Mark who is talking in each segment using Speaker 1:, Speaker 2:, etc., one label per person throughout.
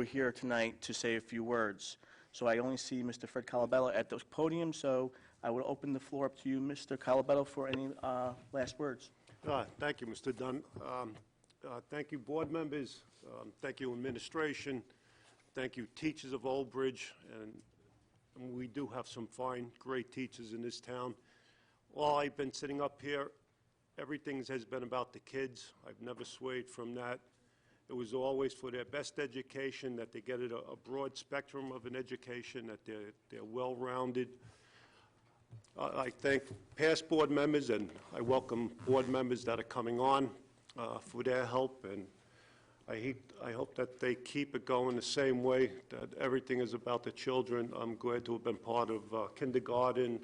Speaker 1: We're here tonight to say a few words. So I only see Mr. Fred Calabello at the podium, so I will open the floor up to you, Mr. Calabello, for any uh, last words.
Speaker 2: Uh, Thank you, Mr. Dunn. Um, uh, Thank you, board members. Um, Thank you, administration. Thank you, teachers of Old Bridge. And and we do have some fine, great teachers in this town. While I've been sitting up here, everything has been about the kids. I've never swayed from that. It was always for their best education, that they get a a broad spectrum of an education, that they're they're well-rounded. I I thank past board members, and I welcome board members that are coming on uh, for their help, and I hate- I hope that they keep it going the same way, that everything is about the children. I'm glad to have been part of uh, kindergarten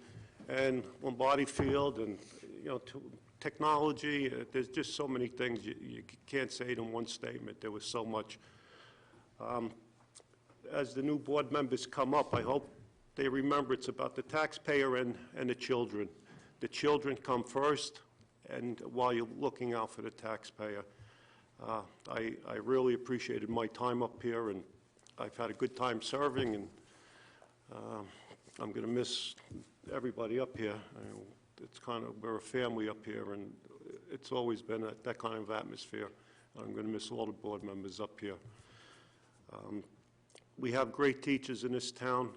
Speaker 2: and Lombardi Field, and, you know, to- technology, Uh, there's just so many things you- you can't say it in one statement. There was so much as the new board members come up, I hope they remember it's about the taxpayer and, and the children. The children come first, and while you're looking out for the taxpayer. Uh, I, I really appreciated my time up here, and I've had a good time serving, and um, I'm going to miss everybody up here. I- It's kind of, we're a family up here, and it's always been that that kind of atmosphere. I'm going to miss all the board members up here. We have great teachers in this town.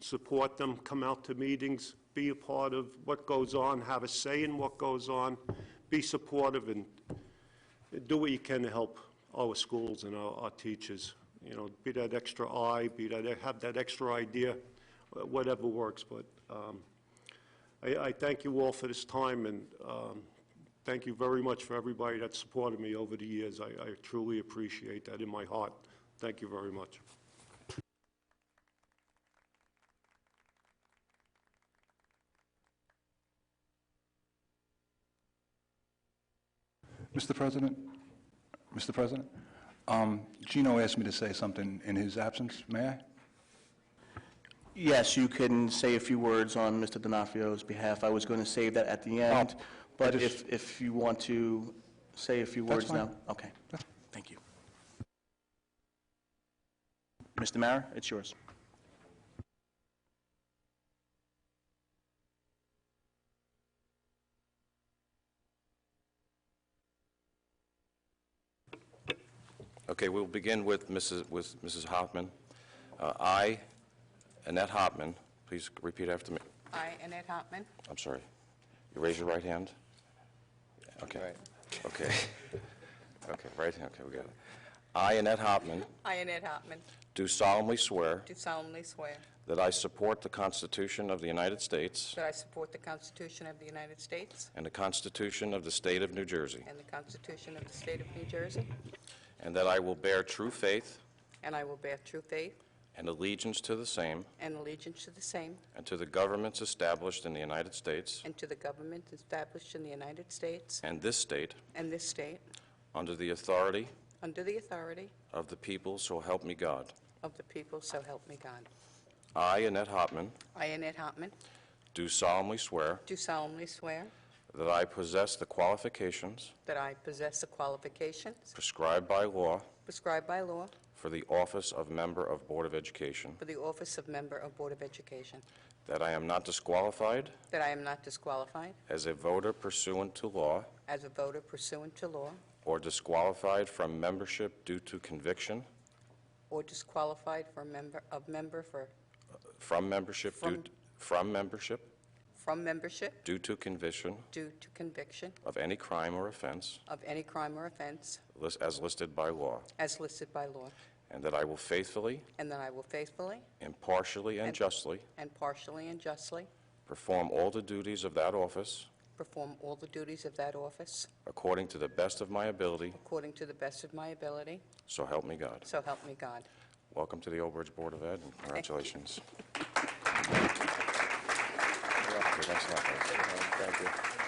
Speaker 2: Support them, come out to meetings, be a part of what goes on, have a say in what goes on, be supportive, and do what you can to help our schools and our, our teachers. You know, be that extra eye, be that, have that extra idea, wh- whatever works. But um, I, I thank you all for this time, and um, thank you very much for everybody that supported me over the years. I I truly appreciate that in my heart. Thank you very much.
Speaker 3: Mr. President? Mr. President? Um, Gino asked me to say something in his absence. May I?
Speaker 1: Yes, you can say a few words on Mr. D'Onofrio's behalf. I was going to save that at the end,
Speaker 3: Oh, I
Speaker 1: but
Speaker 3: just-
Speaker 1: if, if you want to say a few
Speaker 3: That's
Speaker 1: words now.
Speaker 3: fine.
Speaker 1: Okay, thank you. Mr. Mara, it's yours.
Speaker 4: Okay, we'll begin with Mrs. with Mrs. Hoffman. Uh, I, Annette Hoffman, please repeat after me.
Speaker 5: I, Annette Hartman,
Speaker 4: I'm sorry. You raise your right hand? Okay. Okay. Okay, right hand, okay, we got it. I, Annette Hoffman,
Speaker 5: I, Annette Hartman,
Speaker 4: do solemnly swear
Speaker 5: do solemnly swear
Speaker 4: that I support the Constitution of the United States
Speaker 5: that I support the Constitution of the United States
Speaker 4: and the Constitution of the State of New Jersey,
Speaker 5: and the Constitution of the State of New Jersey,
Speaker 4: and that I will bear true faith
Speaker 5: and I will bear true faith
Speaker 4: and allegiance to the same
Speaker 5: and allegiance to the same
Speaker 4: and to the governments established in the United States
Speaker 5: and to the government established in the United States
Speaker 4: and this state
Speaker 5: and this state,
Speaker 4: under the authority
Speaker 5: under the authority
Speaker 4: Of the people, so help me God.
Speaker 5: of the people, so help me God.
Speaker 4: I, Annette Hopman,
Speaker 5: I, Annette Hartman,
Speaker 4: do solemnly swear
Speaker 5: do solemnly swear
Speaker 4: that I possess the qualifications
Speaker 5: that I possess the qualifications
Speaker 4: prescribed by law
Speaker 5: prescribed by law
Speaker 4: for the office of Member of Board of Education,
Speaker 5: for the office of Member of Board of Education,
Speaker 4: that I am not disqualified
Speaker 5: that I am not disqualified
Speaker 4: as a voter pursuant to law
Speaker 5: as a voter pursuant to law
Speaker 4: or disqualified from membership due to conviction,
Speaker 5: or disqualified for member, of member for,
Speaker 4: from membership due,
Speaker 5: From-
Speaker 4: from membership
Speaker 5: from membership
Speaker 4: due to conviction
Speaker 5: due to conviction
Speaker 4: of any crime or offense
Speaker 5: of any crime or offense
Speaker 4: lis- as listed by law,
Speaker 5: as listed by law,
Speaker 4: and that I will faithfully,
Speaker 5: and that I will faithfully
Speaker 4: impartially, and
Speaker 5: And-
Speaker 4: justly
Speaker 5: and partially and justly
Speaker 4: perform all the duties of that office
Speaker 5: perform all the duties of that office
Speaker 4: According to the best of my ability,
Speaker 5: according to the best of my ability,
Speaker 4: so help me God.
Speaker 5: so help me God.
Speaker 4: Welcome to the Old Bridge Board of Ed, and congratulations. Okay, thanks a lot, guys.